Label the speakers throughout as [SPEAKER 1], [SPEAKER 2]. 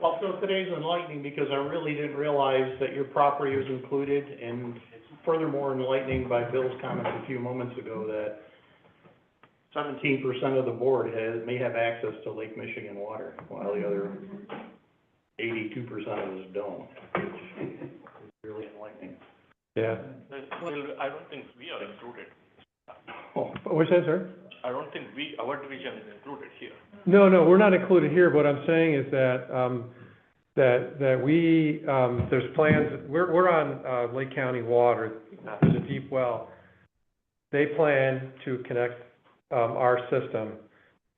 [SPEAKER 1] Well, so today's enlightening because I really didn't realize that your property was included and furthermore enlightening by Bill's comments a few moments ago that seventeen percent of the board has, may have access to Lake Michigan water, while the other eighty-two percent of us don't. It's Really enlightening.
[SPEAKER 2] Yeah.
[SPEAKER 3] I don't think we are included.
[SPEAKER 1] Oh,
[SPEAKER 2] What's that, sir?
[SPEAKER 3] I don't think we, our division is included here.
[SPEAKER 2] No, no, we're not included here. What I'm saying is that, um, that, that we, um, there's plans, we're, we're on, uh, Lake County Water. There's a deep well. They plan to connect, um, our system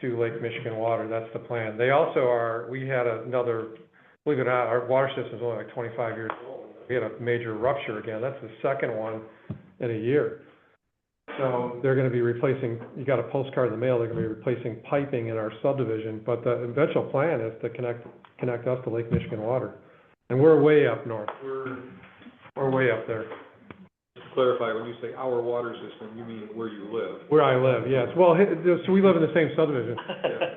[SPEAKER 2] to Lake Michigan Water. That's the plan. They also are, we had another, believe it or not, our water system's only like twenty-five years old. We had a major rupture again. That's the second one in a year. So they're gonna be replacing, you got a postcard in the mail, they're gonna be replacing piping in our subdivision, but the eventual plan is to connect, connect us to Lake Michigan water. And we're way up north, we're, we're way up there,
[SPEAKER 4] Just to clarify, when you say our water system, you mean where you live?
[SPEAKER 2] where I live, yes. Well, hi- so we live in the same subdivision,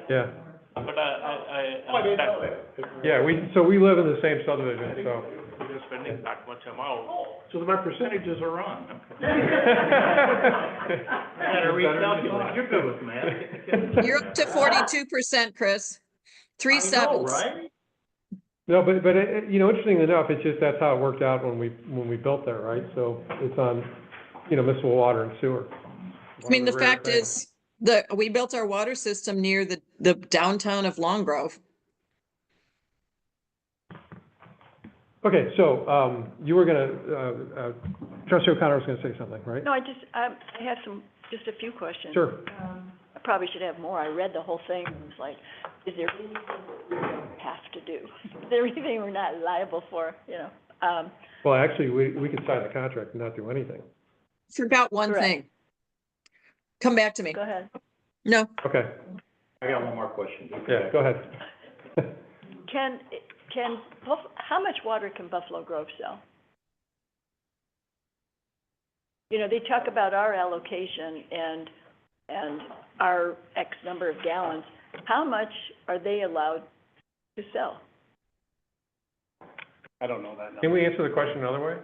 [SPEAKER 2] yeah.
[SPEAKER 3] But I, I, I.
[SPEAKER 1] Oh, I didn't know that.
[SPEAKER 2] Yeah, we, so we live in the same subdivision, so.
[SPEAKER 3] We are spending that much amount.
[SPEAKER 1] So my percentages are wrong.
[SPEAKER 2] Better
[SPEAKER 1] Better recalculate. You're good with math.
[SPEAKER 5] You're up to forty-two percent, Chris. Three sevens.
[SPEAKER 1] I know, right?
[SPEAKER 2] No, but, but, it- it- you know, interestingly enough, it's just, that's how it worked out when we, when we built that, right? So it's on, you know, municipal water and sewer.
[SPEAKER 5] I mean, the
[SPEAKER 2] One of rare
[SPEAKER 5] fact
[SPEAKER 2] things.
[SPEAKER 5] is, the, we built our water system near the, the downtown of Long Grove.
[SPEAKER 2] Okay, so, um, you were gonna, uh, uh, trustee O'Connor was gonna say something, right?
[SPEAKER 6] No, I just, um, I have some, just a few questions.
[SPEAKER 2] Sure.
[SPEAKER 6] I probably should have more. I read the whole thing and was like, is there anything that we don't have to do? Is there anything we're not liable for, you know? Um,
[SPEAKER 2] Well, actually, we, we could sign the contract and not do anything.
[SPEAKER 5] Forgot one
[SPEAKER 6] Correct.
[SPEAKER 5] thing. Come back to me.
[SPEAKER 6] go ahead.
[SPEAKER 5] No,
[SPEAKER 2] Okay,
[SPEAKER 1] I got one more question.
[SPEAKER 2] yeah, go ahead.
[SPEAKER 6] Can, can, Buff- how much water can Buffalo Grove sell? You know, they talk about our allocation and, and our X number of gallons. How much are they allowed to sell?
[SPEAKER 1] I don't know that number.
[SPEAKER 2] Can we answer the question another way?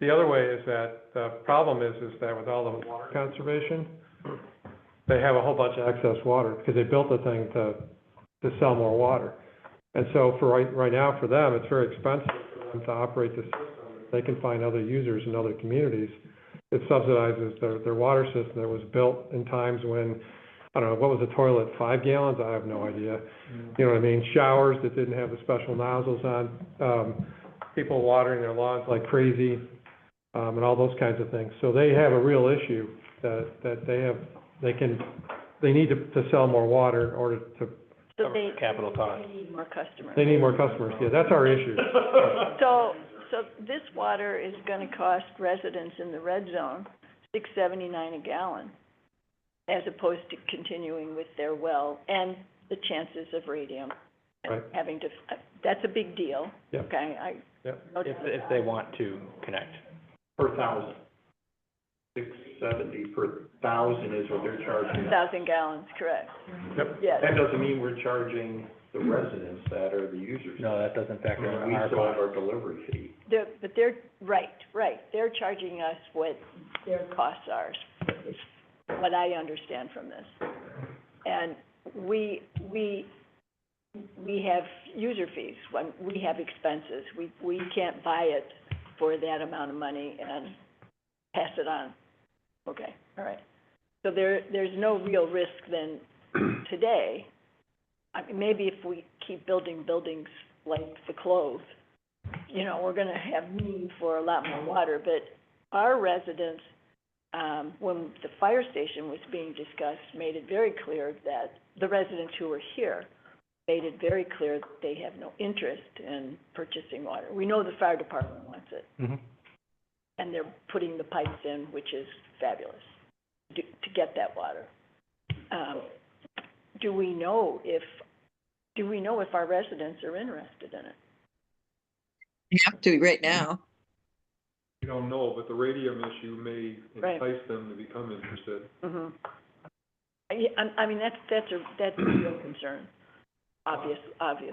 [SPEAKER 2] The other way is that, the problem is, is that with all the water conservation, they have a whole bunch of excess water, because they built the thing to, to sell more water. And so for right, right now, for them, it's very expensive for them to operate the system. They can find other users in other communities. It subsidizes their, their water system that was built in times when, I don't know, what was a toilet, five gallons? I have no idea. You know what I mean? Showers that didn't have the special nozzles on, um, people watering their lawns like crazy, um, and all those kinds of things. So they have a real issue that, that they have, they can, they need to, to sell more water in order to,
[SPEAKER 6] So they,
[SPEAKER 2] capital cost.
[SPEAKER 6] they need more customers.
[SPEAKER 2] They need more customers. Yeah, that's our issue.
[SPEAKER 6] So, so this water is gonna cost residents in the red zone six seventy-nine a gallon, as opposed to continuing with their well and the chances of radium. and
[SPEAKER 2] Right.
[SPEAKER 6] Having to, that's a big deal.
[SPEAKER 2] Yeah.
[SPEAKER 6] Okay, I.
[SPEAKER 2] Yeah.
[SPEAKER 6] no doubt about that.
[SPEAKER 7] want to connect.
[SPEAKER 1] Per thousand. Six seventy per thousand is what they're charging.
[SPEAKER 6] Thousand gallons, correct.
[SPEAKER 2] Yep.
[SPEAKER 6] Yes,
[SPEAKER 1] That doesn't mean we're charging the residents that are the users.
[SPEAKER 7] No, that doesn't factor
[SPEAKER 1] We
[SPEAKER 7] in our
[SPEAKER 1] still have
[SPEAKER 7] cost.
[SPEAKER 1] our delivery fee.
[SPEAKER 6] they're, but they're, right, right, they're charging us what their costs are, is what I understand from this. And we, we, we have user fees, when, we have expenses, we, we can't buy it for that amount of money and pass it on. Okay, all right. So there, there's no real risk then today. I mean, maybe if we keep building buildings like the Clove, you know, we're gonna have need for a lot more water, but our residents, um, when the fire station was being discussed, made it very clear that, the residents who were here made it very clear that they have no interest in purchasing water. We know the fire department wants it,
[SPEAKER 2] Mhm.
[SPEAKER 6] and they're putting the pipes in, which is fabulous, to, to get that water. Um, do we know if, do we know if our residents are interested in it?
[SPEAKER 5] you have to right now.
[SPEAKER 4] You don't know, but the radium issue may
[SPEAKER 6] Right.
[SPEAKER 4] entice them to become interested.
[SPEAKER 6] hmm I, I mean, that's, that's a, that's a real concern, obvious, obvious.